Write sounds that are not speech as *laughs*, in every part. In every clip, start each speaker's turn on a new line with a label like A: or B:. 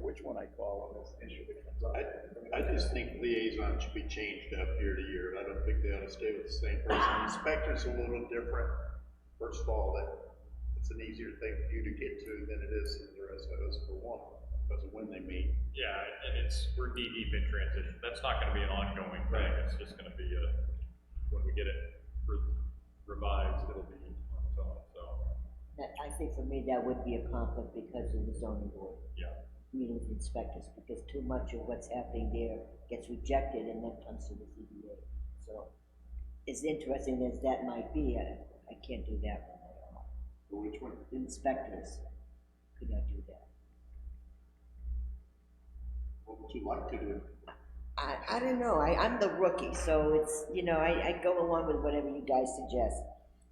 A: which one I call on this issue that comes up.
B: I, I just think liaison should be changed up year to year, I don't think they ought to stay with the same person. Inspector's a little different, first of all, that, it's an easier thing for you to get to than it is for the rest of us for one, because of when they meet.
C: Yeah, and it's, we're knee deep in transition, that's not gonna be an ongoing thing, it's just gonna be a, when we get it re- revised, it'll be on its own, so.
D: That, I think for me, that would be a conflict because of the zoning board.
C: Yeah.
D: Meeting with inspectors, because too much of what's happening there gets rejected and then comes to the ZBA. So, as interesting as that might be, I, I can't do that one at all.
B: Which one?
D: The inspectors could not do that.
B: What would you like to do?
D: I, I don't know, I, I'm the rookie, so it's, you know, I, I go along with whatever you guys suggest.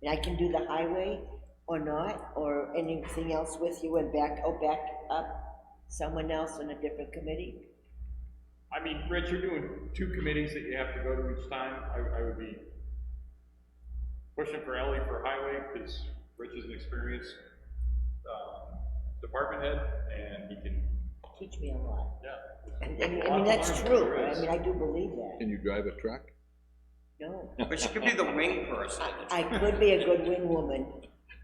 D: And I can do the highway or not, or anything else with you and back, oh, back up someone else on a different committee.
C: I mean, Rich, you're doing two committees that you have to go to each time, I, I would be pushing for Ellie for highway, because Rich is an experienced, um, department head, and he can,
D: Teach me a lot.
C: yeah,
D: And, and, I
C: Well,
D: mean, that's
C: I'm-
D: true, I mean, I do believe that,
E: Can you drive a truck?
D: no.
F: But she could be the wing person.
D: I could be a good wing woman,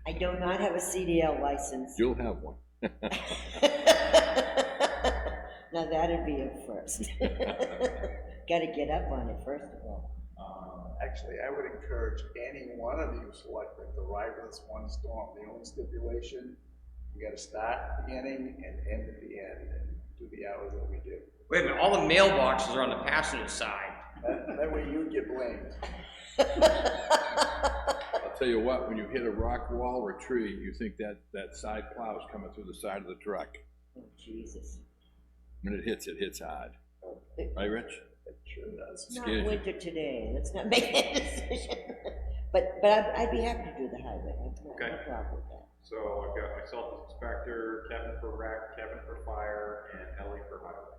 D: I do not have a CDL license.
E: You'll have one.
D: *laughs* Now, that'd be a first. Gotta get up on it, first of all. *laughs*
C: um,
A: Actually, I would encourage any one of you selectmen to ride with us one storm. The only stipulation, you gotta start at the beginning and end at the end, and do the hours that we do.
F: Wait a minute, all the mailboxes are on the passenger side.
A: That, that way you get blamed.
E: I'll tell you what, when you hit a rock wall or tree, you think that, that side plow's coming through the side of the truck.
D: Oh, Jesus.
E: When it hits, it hits hard. Right, Rich?
A: It sure does.
D: It's not
E: Excuse me.
D: winter today, let's not make that *laughs* decision. But, but I'd, I'd be happy to do the highway, I've got no
C: Okay.
D: problem with that.
C: so I've got myself as inspector, Kevin for rec, Kevin for fire, and Ellie for highway.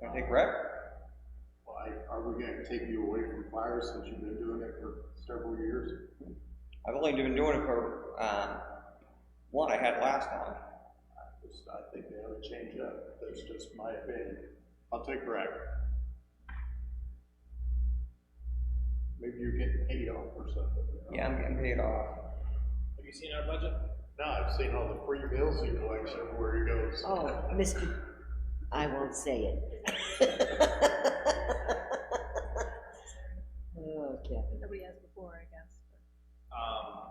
F: Wanna take rep?
B: Why, are we gonna take you away from fire since you've been doing it for several years?
F: I've only been doing it for, um, one I had last time.
B: Just, I think they ought to change up, that's just my opinion. I'll take Brad. Maybe you're getting paid off or something.
F: Yeah, I'm getting paid off.
C: Have you seen our budget?
B: No, I've seen all the free bills he collects everywhere he goes.
D: Oh, Mr., I won't say it. *laughs* Oh, Kevin,
G: Nobody has before, I guess.
C: Um,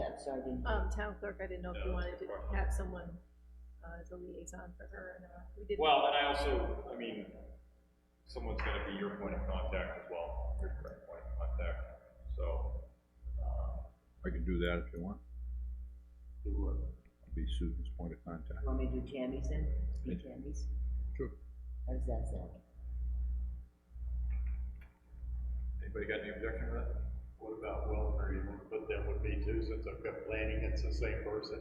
D: I'm sorry, I didn't,
G: Um, town clerk, I didn't know if you
C: Yeah,
G: wanted
C: that's a
G: to
C: good question.
G: have someone, uh, as a liaison for her or not. We didn't.
C: Well, and I also, I mean, someone's gonna be your point of contact as well, your direct point of contact, so.
E: I can do that if you want.
B: He would.
E: I'll Be Susan's point of contact.
D: want me to do Tammy's then? Do Tammy's?
E: Sure.
D: How does that sound?
C: Anybody got any objection to that?
B: What about Wilmer, you wanna put that with me too, since I've got planning, it's the same person?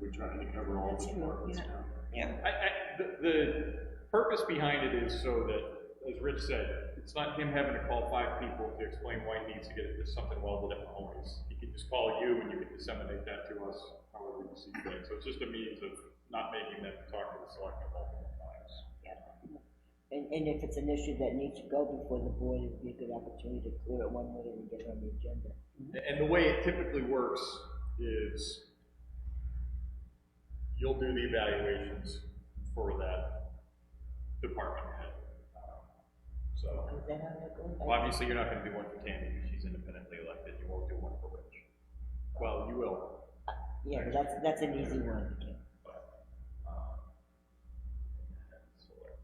B: We're trying to cover all the
D: That's true,
B: departments
D: yeah.
B: now.
F: Yeah.
C: I, I, the, the purpose behind it is so that, as Rich said, it's not him having to call five people to explain why he needs to get it, there's something welded at Mahoney's. He can just call you and you can disseminate that to us however you see fit, so it's just a means of not making them talk to the selectmen multiple times.
D: And, and if it's an issue that needs to go before the board, it'd be a good opportunity to clear it one way and get it on the agenda.
C: And the way it typically works is you'll do the evaluations for that department head. So,
D: Is that how that goes?
C: well, obviously, you're not gonna do one for Tammy, because she's independently elected, you won't do one for Rich. Well, you will,
D: Yeah, but that's, that's an easy one, okay.
C: but, um, so, like,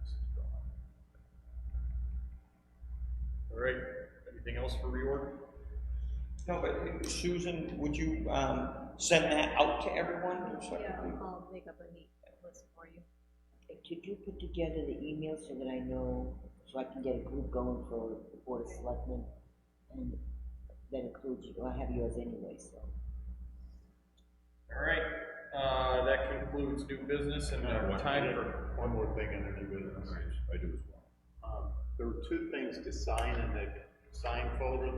C: this is gone. All right, anything else for reorg?
F: No, but Susan, would you, um, send that out to everyone? so I
G: Yeah,
F: can-
G: I'll make up a neat list for you.
D: Could you put together the email so that I know, so I can get a group going for the board of selectmen? And that includes, you. I have yours anyway, so.
C: All right, uh, that concludes new business and
B: Uh,
C: our
B: one-
C: time for.
B: One more thing on the new business.
E: I do as well.
B: Um, There were two things to sign in the sign folder